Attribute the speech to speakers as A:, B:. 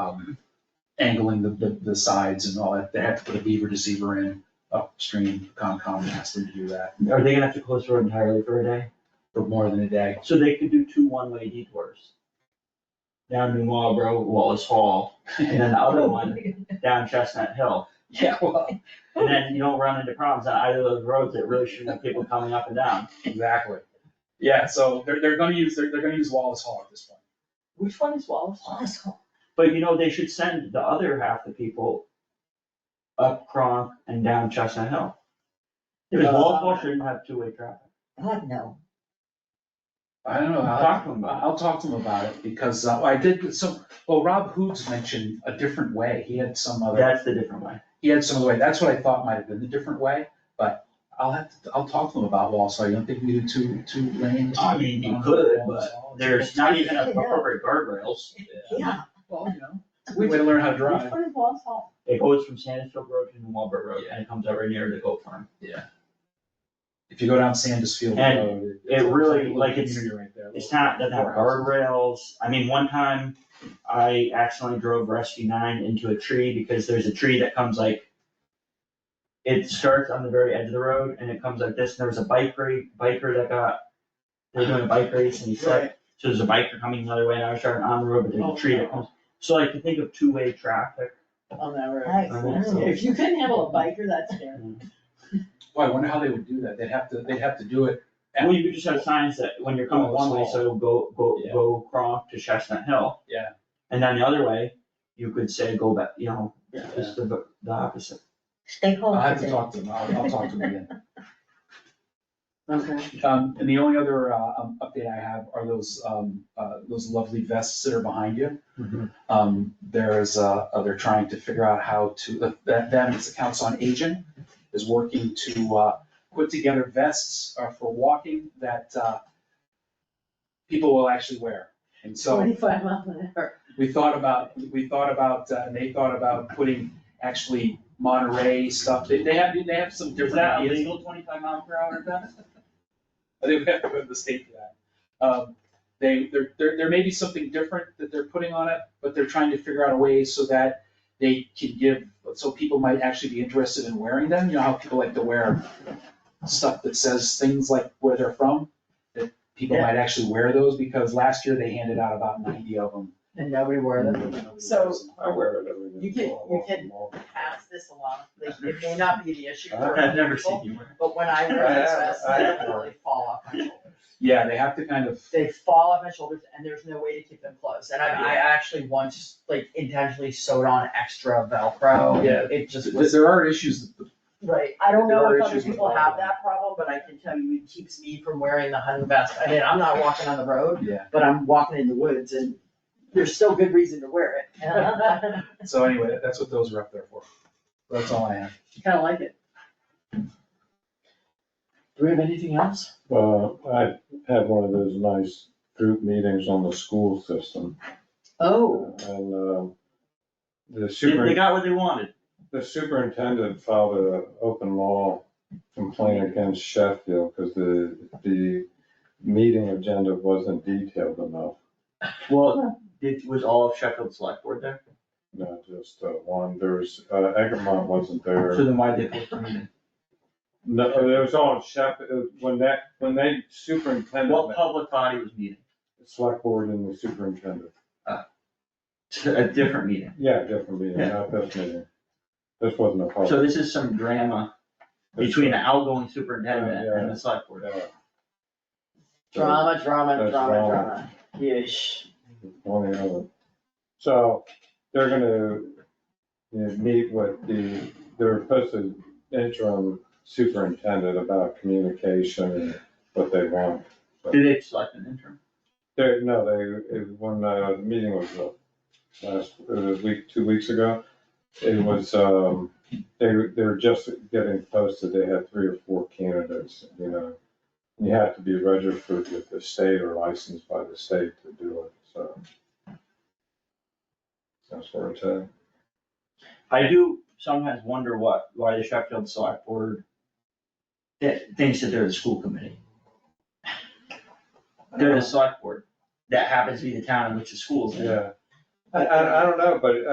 A: um, angling the, the, the sides and all that, they have to put a beaver deceiver in upstream, Concom asked them to do that
B: Are they gonna have to close the road entirely for a day?
A: for more than a day.
B: So they could do two one-way detours. Down New Marlboro, Wallace Hall, and then the other one down Chestnut Hill.
A: Yeah, well,
B: And then you don't run into problems on either of those roads that really shouldn't have people coming up and down.
A: exactly. Yeah, so they're, they're gonna use, they're, they're gonna use Wallace Hall at this point.
B: Which one is Wallace
C: Oh,
B: Hall?
C: Asshole.
B: But you know, they should send the other half the people up Cronk and down Chestnut Hill. Because Wallace Hall shouldn't have two-way traffic.
C: God, no.
A: I don't know, I'll,
B: Talk to them about
A: I'll talk to him about it because uh, I did some, well, Rob Hoods mentioned a different way. He had some
B: it.
A: other.
B: That's the different way.
A: he had some other way, that's what I thought might have been the different way, but I'll have, to I'll talk to them about Wall, so I don't think we do two, two lanes.
B: I mean, you could, but There's not even a appropriate guardrails.
C: Yeah,
A: Well, you know, we way to learn how to drive.
B: one is Wallace Hall? It goes from Sandusville Road to New Marlboro Road, and it comes over near the goat farm.
A: If you go down Sandus Field
B: And
A: Road.
B: it really, like, it's- It's
A: it's
B: not, doesn't have guardrails, I mean, one time, I accidentally drove Rescue Nine into a tree, because there's a tree that comes like. It starts on the very edge of the road, and it comes like this, and there was a bike race, biker that got, they were doing a bike race, and he slipped, So there's a biker coming the other way, and I was driving on the road, but there's a tree that comes, so like, to think of two-way traffic.
D: on that road.
C: I
B: I mean, so-
C: know.
D: If you couldn't handle a biker, that's fair.
A: Well, I wonder how they would do that, they'd have to, they'd have to do it. at-
B: Well, you could just have signs that when you're coming one way, so it'll go, go,
A: Yeah.
B: go Cronk to Chestnut Hill.
A: Yeah.
B: And then the other way, you could say go back, you know,
A: Yeah.
B: just the, the opposite.
C: Stay home
A: I'll have to
C: today.
A: talk to them, I'll, I'll talk to them again.
D: Okay.
A: Um, and the only other, uh, um, update I have are those, um, uh, those lovely vests that are behind you. Um, there's, uh, uh, they're trying to figure out how to, uh, that, that is the Council on Aging is working to, uh, put together vests uh, for walking that, uh, people will actually wear. And so
D: Twenty-five miles an hour.
A: we thought about, we thought about, uh, and they thought about putting actually Monterey stuff. They, they have, they have some different ideas.
B: twenty-five mile per hour vest?
A: I think we have to go to the state for that. Um, they, there, there, there may be something different that they're putting on it, but they're trying to figure out a way so that they can give, so people might actually be interested in wearing them, you know how people like to wear stuff that says things like where they're from, that people might actually wear those, because last year they handed out about ninety of them.
D: And nobody wore them. So
E: I wear it every day.
D: You can- you can- pass this along, like, it may not be the issue for
B: I've never
D: people,
B: seen you wear.
D: but when I
E: I
D: wear this
E: have-
D: vest,
E: I
D: they
E: have one.
D: literally fall off my shoulders.
A: Yeah, they have to kind of,
D: They fall off my shoulders and there's no way to keep them closed. And I, I actually once, like, intentionally sewed on extra Velcro.
A: Yeah.
D: It just was.
A: there are issues,
D: Right, I don't know
A: There are
D: if other
A: issues with
D: people
A: all
D: have
A: of
D: that problem, but I can tell you it keeps me from wearing the hunting vest. I mean, I'm not walking on the road,
A: yeah,
D: but I'm walking in the woods and there's still good reason to wear it. Kinda
A: so anyway, that's what those are up there for. That's all I have.
D: like it. Do we have anything else?
E: Uh, I had one of those nice group meetings on the school system
D: Oh,
E: and, um, the
B: They, they
E: super,
B: got what they wanted.
E: the superintendent filed a open law complaint against Sheffield because the, the meeting agenda wasn't detailed enough.
B: Well, it was all of Sheffield Select Board there,
E: Not just uh, one, there's, uh, Egremont wasn't there.
B: so then why'd they post the meeting?
E: No, it was on Sheffield, when that, when they
B: What
E: superintendent,
B: public body was meeting?
E: select board and the superintendent.
B: A different meeting.
E: Yeah, different meeting, not this meeting. This wasn't a
B: So
E: public.
B: this is some drama between the outgoing superintendent and the select board.
E: Yeah.
D: drama, drama, drama,
E: That's
D: drama. Yes.
E: One or the other. So they're gonna you know, meet with the, they're supposed to interim superintendent about communication and what they want.
B: Did they select an intern?
E: They, no, they, it- when uh, the meeting was uh, last, it was week, two weeks ago, it was, um, they, they were just getting posted, they had three or four candidates, you know. You have to be registered with the state or licensed by the state to do it, so. That's where it's at.
B: I do sometimes wonder what, why the Sheffield Select Board that thinks that they're the school committee. They're the select board. That happens to be the town in which the school's in.
E: Yeah, I, I, I don't know, but uh,